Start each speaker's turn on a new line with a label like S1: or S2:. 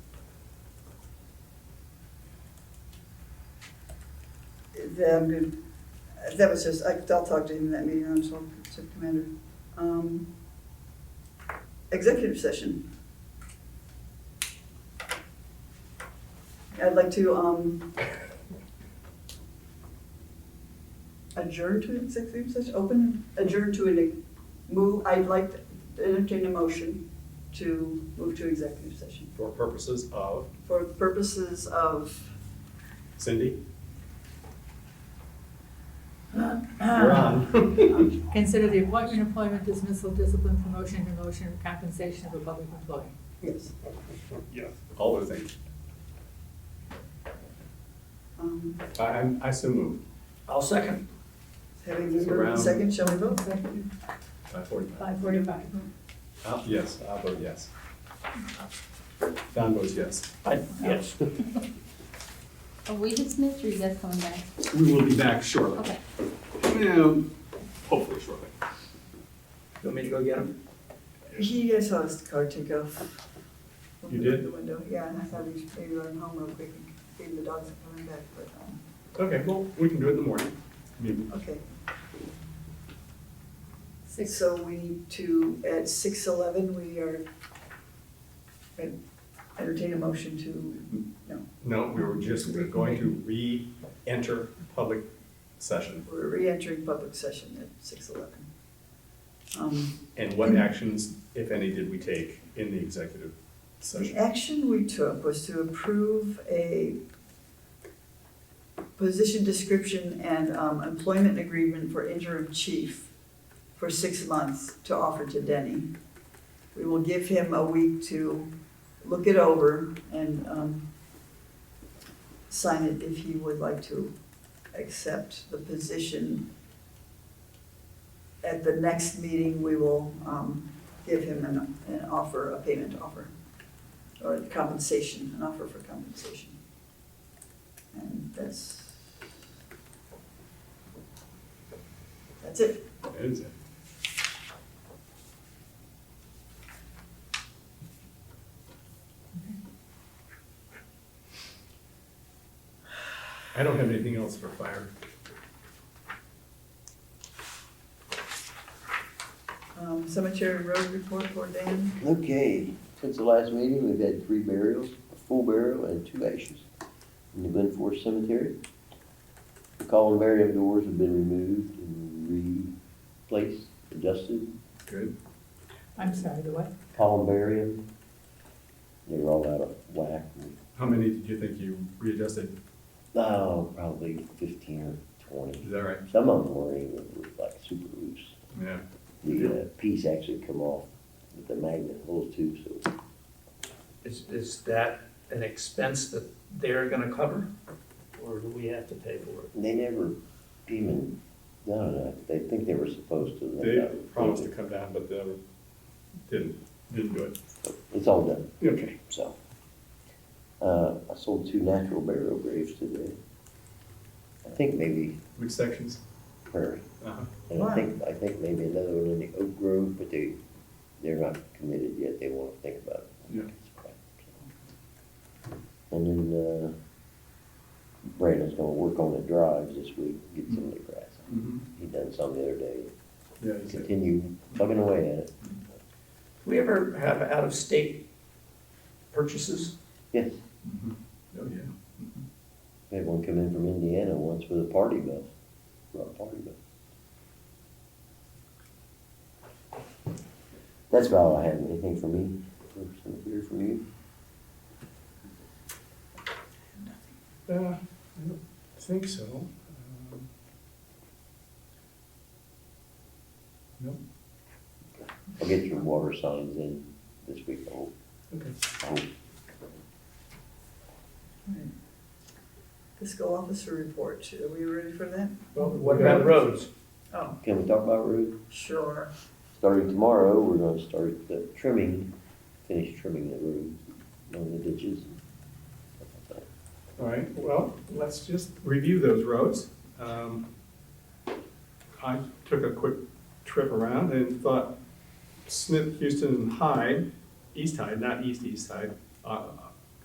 S1: the, that was just, I- I'll talk to him in that meeting, I'm sorry, Commander. Um, Executive session. I'd like to um, adjourn to executive session, open, adjourn to an, move, I'd like to entertain a motion to move to executive session
S2: for purposes of,
S1: for purposes of.
S2: Cindy? You're on.
S3: Consider the appointment, employment, dismissal, discipline, promotion, demotion, or compensation of a public employee.
S1: Yes.
S2: Yeah, all those things.
S1: Um,
S2: I, I'm- I so move.
S4: I'll second.
S1: Having the
S2: So round-
S1: second, shall we vote?
S2: Five forty-five.
S3: Five forty-five.
S2: Uh, yes, I vote yes. Don votes yes.
S4: I, yes.
S5: Are we dismissed or are you guys coming back?
S2: We will be back shortly.
S5: Okay.
S2: Yeah, Hopefully shortly.
S4: You want me to go get him?
S1: He, I saw his car take off.
S2: You did?
S1: The window, yeah, and I thought we should maybe let him home real quick and maybe the dogs are coming back, but, um,
S2: Okay, well, we can do it in the morning. Maybe.
S1: okay.
S3: Six.
S1: So we need to, at six eleven, we are, uh, entertain a motion to, no,
S2: No, we were just going to re-enter public session.
S1: we're re-entering public session at six eleven. Um,
S2: And what actions, if any, did we take in the executive
S1: The
S2: session?
S1: action we took was to approve a position description and um, employment agreement for interim chief for six months to offer to Denny. We will give him a week to look it over and um, sign it if he would like to accept the position. At the next meeting, we will um, give him an, an offer, a payment offer or compensation, an offer for compensation. And that's, that's it.
S2: That is it. I don't have anything else for fire.
S1: Um, Cemetery road report for Dan.
S6: Okay, since the last meeting, we've had three burials, a full burial and two ashes in the Glen Forest Cemetery. The columbarium doors have been removed and replaced, adjusted,
S2: Good.
S3: I'm sorry, the what?
S6: columbarium. They were all out of whack.
S2: How many did you think you readjusted?
S6: Oh, probably fifteen or twenty.
S2: Is that right?
S6: Some of them were even like super loose.
S2: Yeah.
S6: The uh, piece actually come off with the magnet holes too, so
S4: Is, is that an expense that they're gonna cover? Or do we have to pay for it?
S6: they never even, I don't know, they think they were supposed to.
S2: They promised to come down, but they didn't, didn't do it.
S6: It's all done,
S2: Okay.
S6: so. Uh, I sold two natural burial graves today. I think maybe
S2: Which sections?
S6: Prairie,
S2: Uh-huh.
S6: and I think, I think maybe another one in the Oak Grove, but they, they're not committed yet, they wanna think about it.
S2: Yeah.
S6: And then, uh, Brandon's gonna work on the drives this week, get some of the grass. He done some the other day,
S2: Mm-hmm. Yeah, you said.
S6: continue plugging away at it,
S4: We ever have out-of-state purchases?
S6: yes.
S2: Oh, yeah.
S6: We had one come in from Indiana once with a party bus, brought a party bus. That's about all I have, anything for me, or something here from you?
S2: Uh, I don't think so. Um, No,
S6: I'll get your water signs in this week, I hope, Um,
S2: okay.
S6: I hope.
S1: Fiscal officer report. Are we ready for that?
S2: Well,
S4: What about roads?
S1: Oh,
S6: Can we talk about roofs?
S1: sure.
S6: Starting tomorrow, we're gonna start the trimming, finish trimming the roofs, on the ditches.
S2: All right, well, let's just review those roads. Um, I took a quick trip around and thought Smith, Houston, and Hyde, East Hyde, not East East Hyde, uh,